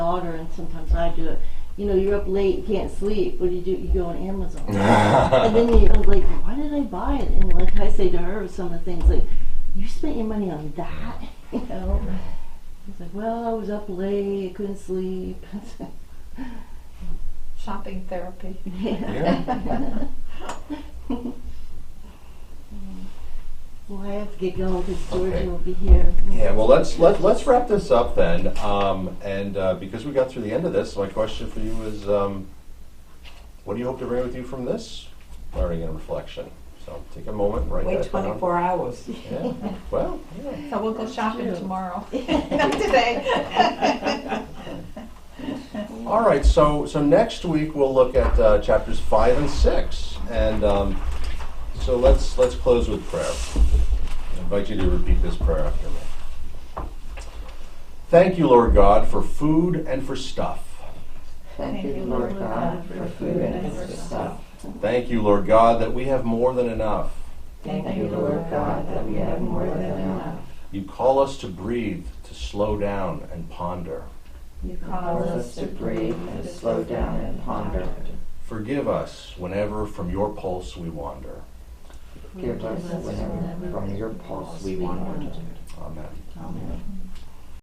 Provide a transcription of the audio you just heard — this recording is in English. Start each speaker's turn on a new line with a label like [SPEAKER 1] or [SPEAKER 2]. [SPEAKER 1] daughter, and sometimes I do it. You know, you're up late, you can't sleep. What do you do? You go on Amazon, and then you, I'm like, why did I buy it? And like I say to her, some of the things like, you spent your money on that, you know. It's like, well, I was up late, I couldn't sleep.
[SPEAKER 2] Shopping therapy.
[SPEAKER 1] Yeah. well, I have to get going because Georgia
[SPEAKER 3] Okay.
[SPEAKER 1] will be here.
[SPEAKER 3] Yeah, well, let's, let, let's wrap this up then. Um, and, uh, because we got through the end of this, my question for you is, um, what do you hope to bring with you from this learning and reflection? So take a moment, write
[SPEAKER 4] Wait
[SPEAKER 3] that down.
[SPEAKER 4] 24 hours.
[SPEAKER 3] Yeah, well, yeah.
[SPEAKER 2] So we'll go shopping
[SPEAKER 1] Sure.
[SPEAKER 2] tomorrow. Not today.
[SPEAKER 3] All right, so, so next week we'll look at uh, chapters five and six, and um, so let's let's close with prayer. I invite you to repeat this prayer after me. Thank you, Lord God, for food and for stuff.
[SPEAKER 2] Thank you, Lord God, for food and for stuff.
[SPEAKER 3] Thank you, Lord God, that we have more than enough.
[SPEAKER 4] Thank you, Lord God, that we have more than enough.
[SPEAKER 3] You call us to breathe, to slow down and ponder.
[SPEAKER 2] You
[SPEAKER 4] Cause us to breathe and to slow down and ponder.
[SPEAKER 3] Forgive us whenever from your pulse we wander.
[SPEAKER 4] Give us whatever from your pulse we want.
[SPEAKER 3] Amen.
[SPEAKER 4] Amen.